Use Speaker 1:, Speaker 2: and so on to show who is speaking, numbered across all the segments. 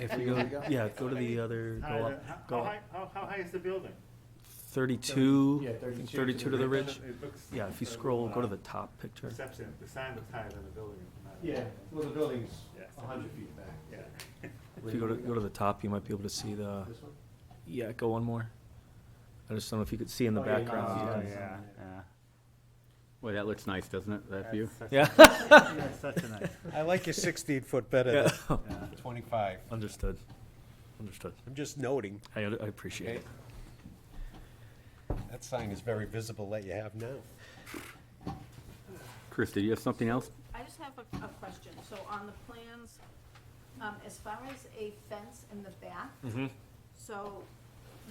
Speaker 1: If we go, yeah, go to the other,
Speaker 2: Higher
Speaker 1: go
Speaker 2: than-
Speaker 1: up,
Speaker 2: how-
Speaker 1: go
Speaker 2: How
Speaker 1: up.
Speaker 2: high, how, how high is the building?
Speaker 1: Thirty-two,
Speaker 3: Yeah,
Speaker 1: 32
Speaker 3: 32
Speaker 1: to the ridge.
Speaker 2: It looks-
Speaker 1: Yeah, if you scroll, go to the top picture.
Speaker 2: Perception, the sign looks higher than the building. not-
Speaker 3: Yeah, well, the building's
Speaker 2: Yeah.
Speaker 3: a hundred feet back.
Speaker 2: Yeah.
Speaker 1: If you go to, go to the top, you might be able to see the,
Speaker 3: This one?
Speaker 1: yeah, go one more. I just don't know if you could see in the
Speaker 3: Oh, yeah, you can
Speaker 1: background.
Speaker 3: see
Speaker 4: Oh, yeah, yeah. Boy, that looks nice, doesn't it, that view?
Speaker 2: That's such a-
Speaker 1: Yeah,
Speaker 2: yeah, Such a nice.
Speaker 5: I like your 16-foot better
Speaker 1: Yeah.
Speaker 5: than 25.
Speaker 1: understood, understood.
Speaker 5: I'm just noting,
Speaker 1: I, I
Speaker 5: okay?
Speaker 1: appreciate it.
Speaker 5: That sign is very visible that you have now.
Speaker 4: Chris, did you have something else?
Speaker 6: I just have a, a question, so on the plans, um, as far as a fence in the back,
Speaker 1: Mhm.
Speaker 6: so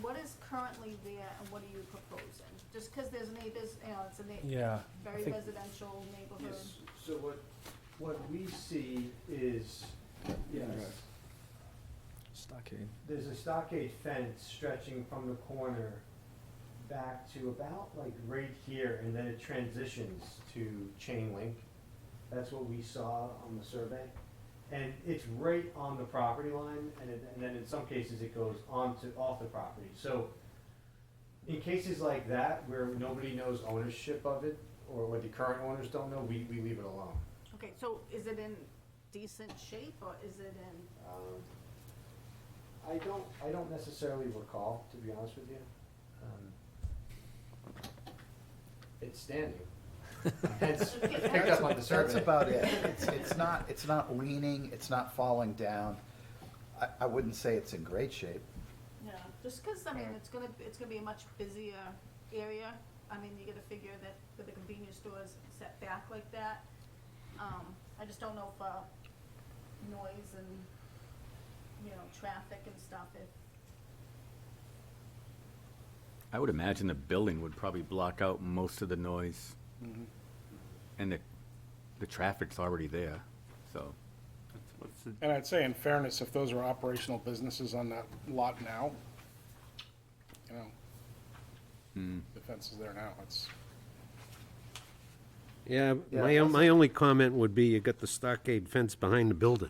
Speaker 6: what is currently there and what are you proposing? Just because there's neighbors, you know, it's a na-
Speaker 1: Yeah, I
Speaker 6: very
Speaker 1: think,
Speaker 6: residential neighborhood.
Speaker 3: Yes, so what, what we see is, yes,
Speaker 1: stockade,
Speaker 3: there's a stockade fence stretching from the corner back to about like right here, and then it transitions to chain link. That's what we saw on the survey. And it's right on the property line, and it, and then in some cases it goes on to, off the property. So in cases like that, where nobody knows ownership of it, or what the current owners don't know, we, we leave it alone.
Speaker 6: Okay, so is it in decent shape or is it in,
Speaker 3: Um, I don't, I don't necessarily recall, to be honest with you. Um, It's standing. Hence, it's picked up on the survey.
Speaker 7: That's about it. It's, it's not, it's not leaning, it's not falling down. I, I wouldn't say it's in great shape.
Speaker 6: yeah, just because, I mean, it's gonna, it's gonna be a much busier area. I mean, you gotta figure that with the convenience stores set back like that, um, I just don't know if, uh, noise and, you know, traffic and stuff, if,
Speaker 4: I would imagine the building would probably block out most of the noise. And the, the traffic's already there, so.
Speaker 2: What's the-
Speaker 8: And I'd say in fairness, if those are operational businesses on that lot now, you know,
Speaker 1: Hmm.
Speaker 8: the fence is there now, it's,
Speaker 5: Yeah,
Speaker 7: Yeah,
Speaker 5: my,
Speaker 7: that's-
Speaker 5: my only comment would be you got the stockade fence behind the building.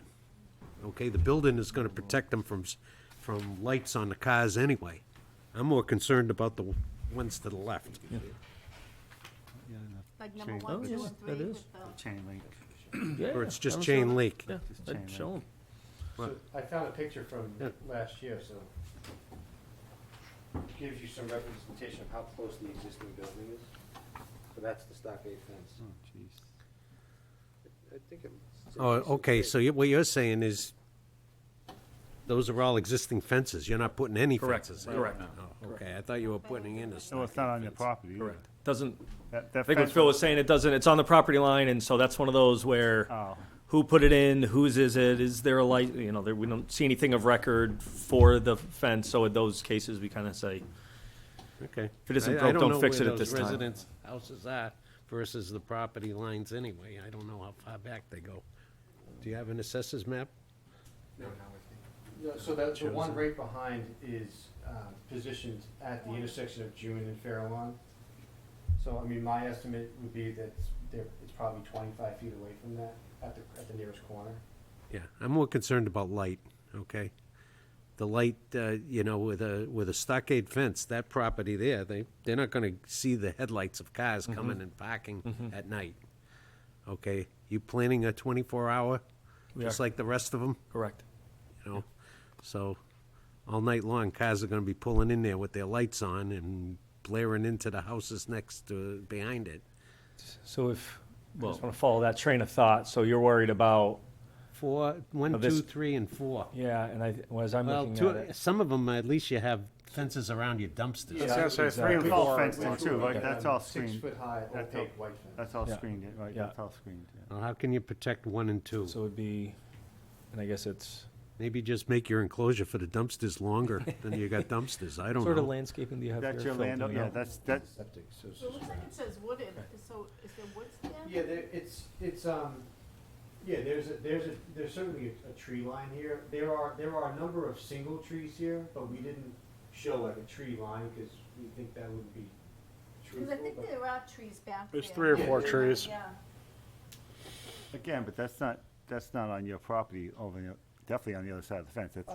Speaker 5: Okay, the building is gonna protect them from, s- from lights on the cars anyway. I'm more concerned about the ones to the left.
Speaker 2: yeah, no,
Speaker 6: like number
Speaker 2: Change.
Speaker 1: Oh,
Speaker 6: one, two,
Speaker 1: yeah,
Speaker 6: and three
Speaker 1: that is.
Speaker 6: with the,
Speaker 2: Chain link.
Speaker 1: yeah.
Speaker 5: Or it's just
Speaker 1: I'm
Speaker 5: chain
Speaker 1: sure.
Speaker 5: link.
Speaker 1: Yeah,
Speaker 2: Just chain
Speaker 1: I'd
Speaker 2: link.
Speaker 1: show 'em.
Speaker 3: So I found a picture from
Speaker 5: Yeah.
Speaker 3: last year, so. Gives you some representation of how close the existing building is. So that's the stockade fence.
Speaker 2: Oh, jeez.
Speaker 3: I think it.
Speaker 5: Oh, okay, so you- what you're saying is, those are all existing fences, you're not putting any
Speaker 1: Correct,
Speaker 5: fences in?
Speaker 1: correct,
Speaker 5: Oh, Okay, I thought you were putting in a
Speaker 2: No, Oh, it's not on your
Speaker 5: property.
Speaker 2: property. either.
Speaker 1: Doesn't,
Speaker 2: That,
Speaker 1: I
Speaker 2: that
Speaker 1: think what
Speaker 2: fence.
Speaker 1: Phil was saying, it doesn't, it's on the property line, and so that's one of those where
Speaker 2: Oh,
Speaker 1: who put it in, whose is it, is there a light, you know, there, we don't see anything of record for the fence, so in those cases, we kind of say,
Speaker 5: Okay.
Speaker 1: If it isn't
Speaker 5: I- I
Speaker 1: broke, don't
Speaker 5: know
Speaker 1: fix
Speaker 5: where
Speaker 1: it at
Speaker 5: those
Speaker 1: this time.
Speaker 5: Residents' houses are versus the property lines anyway. I don't know how far back they go. Do you have an assessors map?
Speaker 3: No, so that, the one right behind is um, positioned at the intersection of June and Farallon. So, I mean, my estimate would be that it's- they're- it's probably twenty-five feet away from that at the, at the nearest corner.
Speaker 5: Yeah, I'm more concerned about light, okay? The light, uh, you know, with a, with a stockade fence, that property there, they, they're not gonna see the headlights of
Speaker 1: Mm-hmm.
Speaker 5: cars coming and parking at night. Okay, you planning a twenty-four hour,
Speaker 1: We
Speaker 5: just
Speaker 1: are.
Speaker 5: like the rest of them,
Speaker 1: correct.
Speaker 5: you know? So, all night long, cars are gonna be pulling in there with their lights on and blaring into the houses next to, behind it.
Speaker 1: So if, I
Speaker 4: Well-
Speaker 1: just want to follow that train of thought, so you're worried about,
Speaker 5: Four,
Speaker 1: Now
Speaker 5: one,
Speaker 1: this-
Speaker 5: two, three, and four.
Speaker 1: yeah, and I, well, as I'm
Speaker 5: Well,
Speaker 1: looking
Speaker 5: two-
Speaker 1: at it,
Speaker 5: some of them, at least you have fences around your dumpsters.
Speaker 8: Yeah, so three and
Speaker 2: It's all fenced in too, like,
Speaker 3: Um,
Speaker 2: that's all screened.
Speaker 3: Six foot high
Speaker 2: That's all-
Speaker 3: opaque white fence.
Speaker 2: That's all
Speaker 1: Yeah.
Speaker 2: screened, right,
Speaker 1: Yeah.
Speaker 2: that's all screened, yeah.
Speaker 5: Well, how can you protect one and two?
Speaker 1: so it'd be, and I guess it's
Speaker 5: Maybe just make your enclosure for the dumpsters longer than you got dumpsters, I don't
Speaker 1: sort of
Speaker 5: know.
Speaker 1: landscaping do you have here?
Speaker 2: That's your
Speaker 1: Phil? Do
Speaker 2: land,
Speaker 1: we
Speaker 2: yeah,
Speaker 1: know?
Speaker 2: that's, that's,
Speaker 3: Septic, so it's
Speaker 6: so it
Speaker 3: just
Speaker 6: looks like
Speaker 3: around.
Speaker 6: it says wooded, so is there woods there?
Speaker 3: Yeah, there, it's, it's, um, yeah, there's a, there's a, there's certainly a, a tree line here. There are, there are a number of single trees here, but we didn't show like a tree line, cause we think that would be
Speaker 6: Because I
Speaker 3: truthful.
Speaker 6: think
Speaker 3: but-
Speaker 6: there are trees back there.
Speaker 8: there's three or
Speaker 3: Yeah,
Speaker 8: four
Speaker 3: yeah.
Speaker 8: trees.
Speaker 6: Yeah.
Speaker 2: again, but that's not, that's not on your property over your, definitely on the other side of the fence. That's-